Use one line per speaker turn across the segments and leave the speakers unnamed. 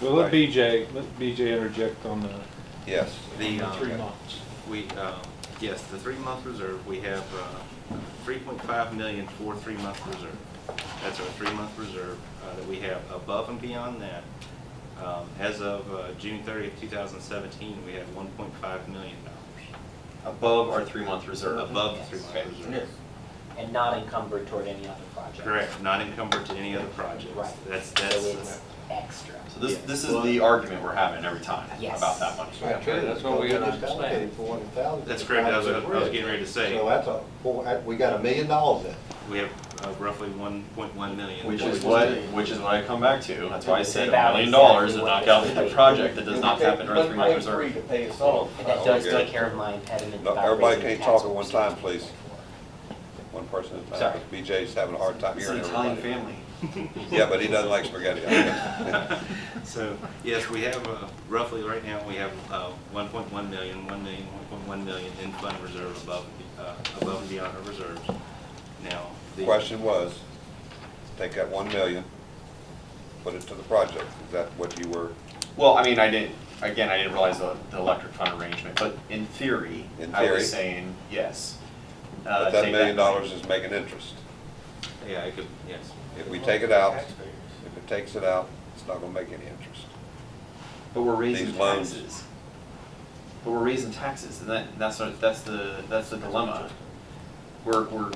Well, let
Right.
BJ, let BJ interject on the
Yes.
The, uh,
three months.
we, um, yes, the three-month reserve, we have uh, 3.5 million for three-month reserve. That's our three-month reserve uh, that we have above and beyond that. um, As of uh, June 30th, 2017, we have 1.5 million dollars
Above our three-month reserve.
above the
Yes.
Okay.
three-month
Yes.
reserve.
and not encumbered toward any other project.
Correct, not encumbered to any other projects.
Right.
That's,
So
that's,
it's extra.
So this, this is the argument we're having every time
Yes.
about that money.
That's true,
That's what we
Because
understand.
just allocated $400,000.
that's correct, I was, I was getting ready to say,
So that's a, four- that- we got a million dollars in.
we have uh, roughly 1.1 million.
Which is what, which is what I come back to, that's why I said a
About
million
exactly
dollars and
what
knock
I
out
was
the
thinking.
project that does not happen our three-month
Free to
reserve.
pay us off.
And that
Oh,
does
Okay.
take care of my impediment
No,
about
Everybody
raising
can't
the
talk
tax
at one
rate.
time, please. One person at a time.
Sorry.
'cause BJ's having a hard time
It's an
hearing
Italian
everybody.
family.
Yeah, but he doesn't like spaghetti.
So, yes, we have uh, roughly, right now, we have uh, 1.1 million, 1 million, 1.1 million in fund reserve above, uh, above and beyond our reserves. Now,
The
the.
Question was, take that one million, put it to the project. Is that what you were,
Well, I mean, I didn't, again, I didn't realize the, the electric fund arrangement, but in theory,
In
I
theory.
was saying, yes. Uh,
but that
take
million dollars is making interest.
Yeah, it could, yes.
If we take it out, if it takes it out, it's not gonna make any interest.
But we're raising
These loans.
taxes. But we're raising taxes, and that, that's, what- that's the, that's the dilemma. We're, we're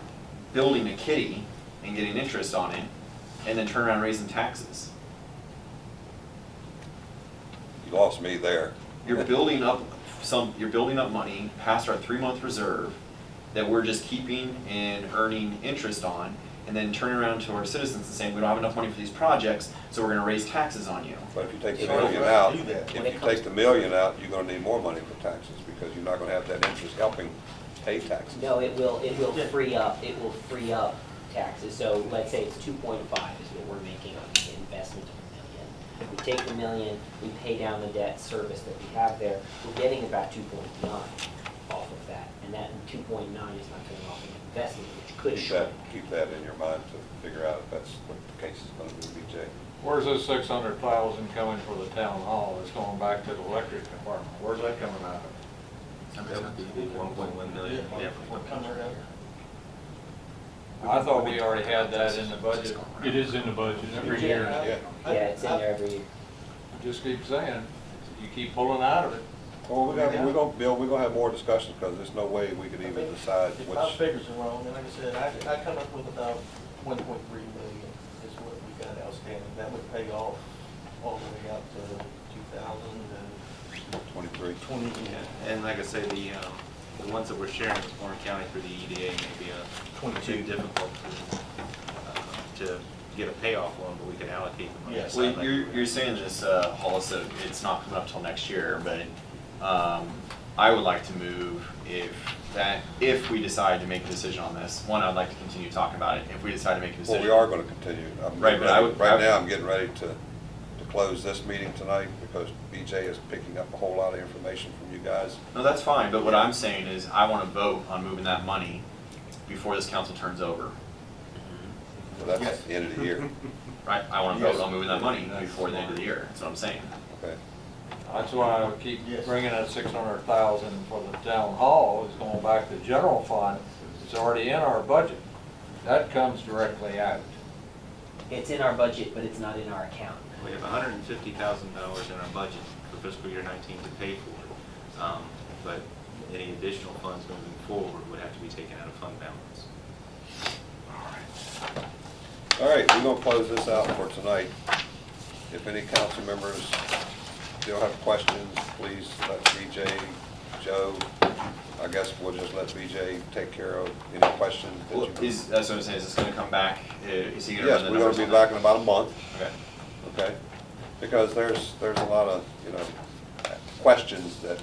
building a kitty and getting interest on it, and then turn around raising taxes.
You lost me there.
You're building up some, you're building up money past our three-month reserve that we're just keeping and earning interest on, and then turning around to our citizens and saying, we don't have enough money for these projects, so we're gonna raise taxes on you.
But if you take
If
the
you
million
don't
out,
do that,
if
when it
you
comes-
take the million out, you're gonna need more money for taxes because you're not gonna have that interest helping pay taxes.
No, it will, it will free up, it will free up taxes. So let's say it's two point five is what we're making on the investment of a million. We take the million, we pay down the debt service that we have there, we're getting about two point nine off of that. And that two point nine is not going off an investment, which could
Keep
shrink.
that, keep that in your mind to figure out if that's what the case is gonna be, BJ.
Where's those six hundred thousand coming for the town hall? It's going back to the electric department. Where's that coming out of?
That would be 1.1 million, definitely.
I thought we already had that in the budget.
It is in the budget every year.
Uh,
Yeah.
Yeah, it's in there every year.
Just keep saying, you keep pulling out of it.
Well, we're gonna, we're gonna, Bill, we're gonna have more discussions, because there's no way we could even decide
If my
which,
figures are wrong, and like I said, I, I come up with about one point three million is what we got outstanding. That would pay off all the way out to two thousand and
twenty-three.
twenty.
Yeah, And like I say, the, um, the ones that we're sharing with Warren County through the EDA may be a.
22.
too Difficult to, uh, to get a payoff on, but we can allocate the money.
Yes.
aside
Well,
like
you're,
we
you're saying this, uh, Hollis, that it's not coming up till next year, but, um, I would like to move if that, if we decide to make a decision on this, one, I'd like to continue talking about it, if we decide to make a
Well,
decision.
we are gonna continue. I'm
Right, but I would-
Right now, I'm getting ready to, to close this meeting tonight, because BJ is picking up a whole lot of information from you guys.
No, that's fine, but what I'm saying is I wanna vote on moving that money before this council turns over,
So that's the end of the year,
right? I wanna vote
Yes.
on moving that money before the end of the year, that's what I'm saying.
okay?
That's why I keep
Yes.
bringing that six hundred thousand for the town hall, it's going back to the general fund, it's already in our budget. That comes directly out.
It's in our budget, but it's not in our account.
We have hundred and fifty thousand dollars in our budget for fiscal year nineteen to pay for it. Um, But any additional funds moving forward would have to be taken out of fund balance.
All right, we're gonna close this out for tonight. If any council members still have questions, please let BJ, Joe, I guess we'll just let BJ take care of any questions that
Well,
you.
is, that's what I'm saying, is this gonna come back, Uh, is he gonna run
Yes,
the
we're gonna
numbers
be
on that?
back in about a month.
Okay.
okay? Because there's, there's a lot of, you know, questions that,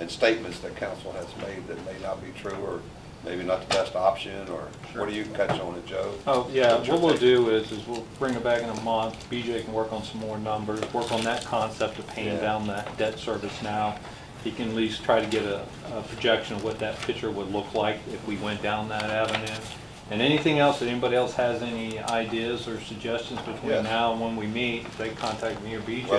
and statements that council has made that may not be true, or maybe not the best option, or what do you catch on it, Joe?
Oh, yeah,
What's your
what we'll
take?
do is, is we'll bring it back in a month, BJ can work on some more numbers, work on that concept of paying
Yeah.
down that debt service now. He can at least try to get a, a projection of what that picture would look like if we went down that avenue. And anything else, that anybody else has any ideas or suggestions between
Yes.
now and when we meet, they contact me or BJ.